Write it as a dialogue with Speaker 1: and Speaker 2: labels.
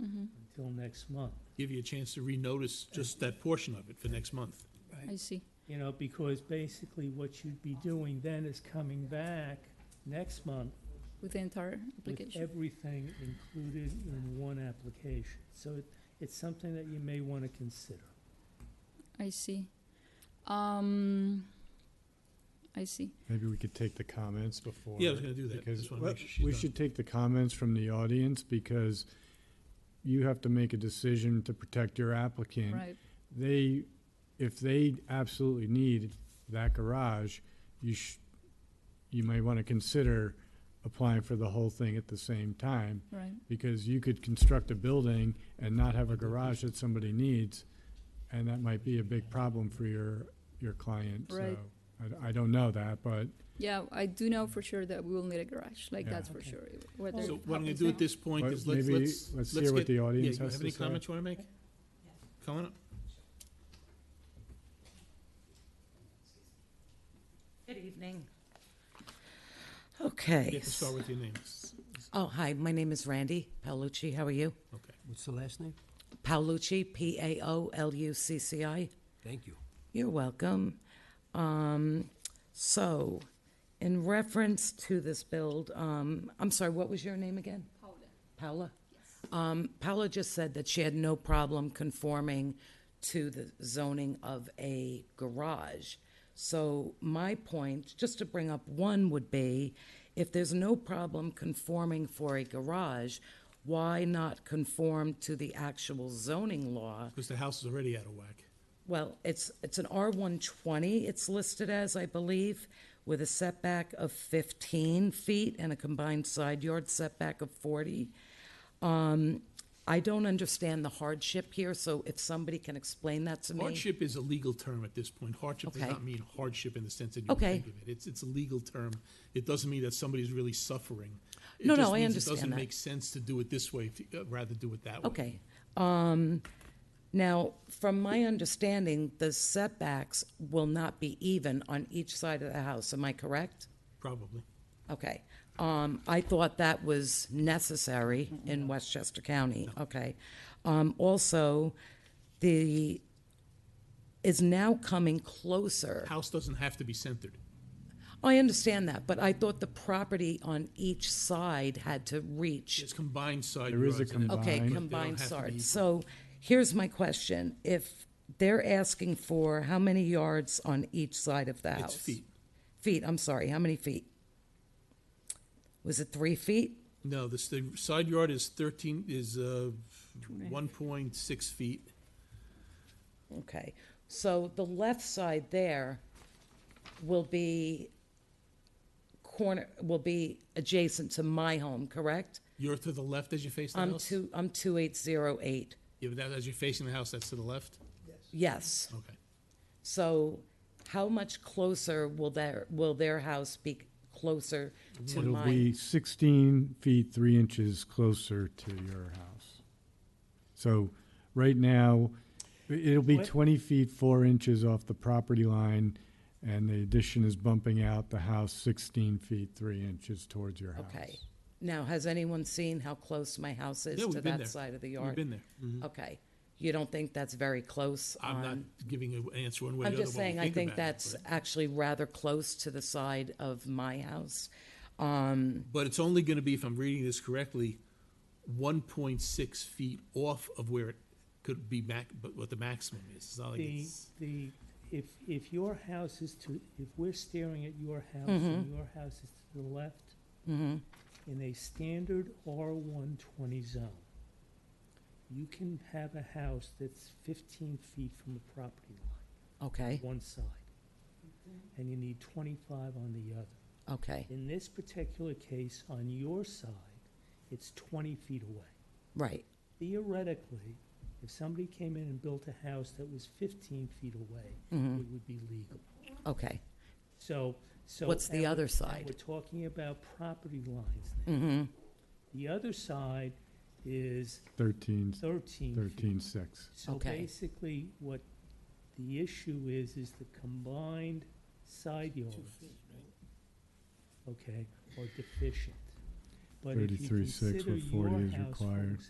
Speaker 1: Mm-hmm.
Speaker 2: until next month.
Speaker 3: Give you a chance to renotice just
Speaker 4: Uh,
Speaker 3: that portion of it for next month.
Speaker 2: Right.
Speaker 1: I see.
Speaker 2: You know, because basically what you'd be doing then is coming back next month
Speaker 1: With the entire
Speaker 2: with
Speaker 1: application.
Speaker 2: everything included in one application. So it, it's something that you may want to consider.
Speaker 1: I see. Um, I see.
Speaker 4: Maybe we could take the comments before.
Speaker 3: Yeah, I was gonna do that.
Speaker 4: because
Speaker 3: Just wanna make
Speaker 4: what-
Speaker 3: sure she's
Speaker 4: We
Speaker 3: done.
Speaker 4: should take the comments from the audience because you have to make a decision to protect your
Speaker 3: Mm-hmm.
Speaker 4: applicant.
Speaker 1: Right.
Speaker 4: They, if they absolutely need that garage, you sh, you might want to consider applying for the whole thing at the same time.
Speaker 1: Right.
Speaker 4: Because you could construct a building and not have a garage that somebody needs, and that might be a big problem for your, your client, so.
Speaker 1: Right.
Speaker 4: I, I don't know that, but
Speaker 1: Yeah, I do know for sure that we will need a garage. Like
Speaker 4: Yeah.
Speaker 1: that's for
Speaker 2: Okay.
Speaker 1: sure. Whether
Speaker 3: So
Speaker 1: it
Speaker 3: what I'm gonna
Speaker 1: happens
Speaker 3: do
Speaker 1: now-
Speaker 3: at this point
Speaker 4: but
Speaker 3: is let's,
Speaker 4: maybe,
Speaker 3: let's,
Speaker 4: let's
Speaker 3: let's
Speaker 4: hear what
Speaker 3: get,
Speaker 4: the
Speaker 3: yeah,
Speaker 4: audience
Speaker 3: you
Speaker 4: has
Speaker 3: have
Speaker 4: to
Speaker 3: any
Speaker 4: say.
Speaker 3: comments you wanna make? Come on up.
Speaker 5: Good evening.
Speaker 3: You
Speaker 5: Okay.
Speaker 3: have to start with your name.
Speaker 5: Oh, hi, my name is Randy Paolucci. How are you?
Speaker 3: Okay.
Speaker 6: What's the last name?
Speaker 5: Paolucci, P A O L U C C I.
Speaker 6: Thank you.
Speaker 5: You're welcome. Um, so, in reference to this build, um, I'm sorry, what was your name again? Paula. Paula? Um, Paula just said that she had no problem conforming to the zoning of a garage. So, my point, just to bring up one, would be if there's no problem conforming for a garage, why not conform to the actual zoning law?
Speaker 3: Because the house is already out of whack.
Speaker 5: Well, it's, it's an R one twenty, it's listed as, I believe, with a setback of fifteen feet and a combined side yard setback of forty. Um, I don't understand the hardship here, so if somebody can explain that to me.
Speaker 3: Hardship is a legal term at this point. Hardship does
Speaker 5: Okay.
Speaker 3: not mean hardship in the sense that you would
Speaker 5: Okay.
Speaker 3: think of it. It's, it's a legal term. It doesn't mean that somebody's really suffering. It
Speaker 5: No, no,
Speaker 3: just
Speaker 5: I
Speaker 3: means
Speaker 5: understand
Speaker 3: It doesn't
Speaker 5: that.
Speaker 3: make sense to do it this way, if you- uh, rather do it that way.
Speaker 5: Okay. Um, now, from my understanding, the setbacks will not be even on each side of the house, am I correct?
Speaker 3: Probably.
Speaker 5: Okay. Um, I thought that was necessary
Speaker 3: Mm-hmm.
Speaker 5: in Westchester County. Okay. Um, also, the, is now coming closer. Oh,
Speaker 3: House doesn't have to be centered.
Speaker 5: I understand that, but I thought the property on each side had to reach
Speaker 3: It's combined side
Speaker 4: There is a
Speaker 3: yards and it-
Speaker 5: Okay,
Speaker 4: Combined.
Speaker 5: combined
Speaker 3: They don't have to be
Speaker 5: yard.
Speaker 3: equal.
Speaker 5: So here's my question. If they're asking for how many yards on each side of the
Speaker 3: It's
Speaker 5: house?
Speaker 3: feet.
Speaker 5: Feet, I'm sorry, how many feet? Was it three feet?
Speaker 3: No, this, the side yard is thirteen, is, uh, one point six feet.
Speaker 5: Okay. So the left side there will be corner, will be adjacent to my home, correct?
Speaker 3: You're to the left as you face the
Speaker 5: I'm
Speaker 3: house?
Speaker 5: two, I'm two eight zero eight.
Speaker 3: Yeah, but that, as you're facing the house, that's to the left?
Speaker 5: Yes.
Speaker 3: Okay.
Speaker 5: So how much closer will their, will their house be closer to
Speaker 4: It'll
Speaker 5: mine?
Speaker 4: be sixteen feet, three inches closer to your house. So, right now, i- it'll be
Speaker 2: What?
Speaker 4: twenty feet, four inches off the property line, and the addition is bumping out the house sixteen feet, three inches towards your house.
Speaker 5: Okay. Now, has anyone seen how close my house is
Speaker 3: Yeah,
Speaker 5: to
Speaker 3: we've been
Speaker 5: that
Speaker 3: there.
Speaker 5: side of the
Speaker 3: We've
Speaker 5: yard?
Speaker 3: been there.
Speaker 4: Mm-hmm.
Speaker 5: Okay. You don't think that's very close
Speaker 3: I'm not
Speaker 5: on?
Speaker 3: giving an answer one way or
Speaker 5: I'm
Speaker 3: the other.
Speaker 5: just
Speaker 3: while we
Speaker 5: saying, I think
Speaker 3: about it,
Speaker 5: that's
Speaker 3: but-
Speaker 5: actually rather close to the side of my house. Um,
Speaker 3: But it's only gonna be, if I'm reading this correctly, one point six feet off of where it could be mac, but what the maximum is. It's not like
Speaker 2: The,
Speaker 3: it's,
Speaker 2: the, if, if your house is to, if we're staring at your house and your house is to the left,
Speaker 5: mm-hmm,
Speaker 2: in a standard R one twenty zone, you can have a house that's fifteen feet from the property line,
Speaker 5: okay,
Speaker 2: one side. And you need twenty-five on the other.
Speaker 5: okay,
Speaker 2: In this particular case, on your side, it's twenty feet away.
Speaker 5: right,
Speaker 2: Theoretically, if somebody came in and built a house that was fifteen feet away,
Speaker 5: Mm.
Speaker 2: it would be legal.
Speaker 5: mm-hmm, okay,
Speaker 2: So, so.
Speaker 5: What's the
Speaker 2: and we-
Speaker 5: other
Speaker 2: and
Speaker 5: side? Mm. Mm-hmm.
Speaker 2: We're talking about property lines now. The other side is
Speaker 4: Thirteen,
Speaker 2: thirteen feet.
Speaker 4: thirteen, six.
Speaker 2: So
Speaker 5: Okay.
Speaker 2: basically, what the issue is, is the combined side yards. Okay, are deficient. But if you
Speaker 4: 33.6
Speaker 2: consider
Speaker 4: with 40
Speaker 2: your
Speaker 4: is
Speaker 2: house, for
Speaker 4: required.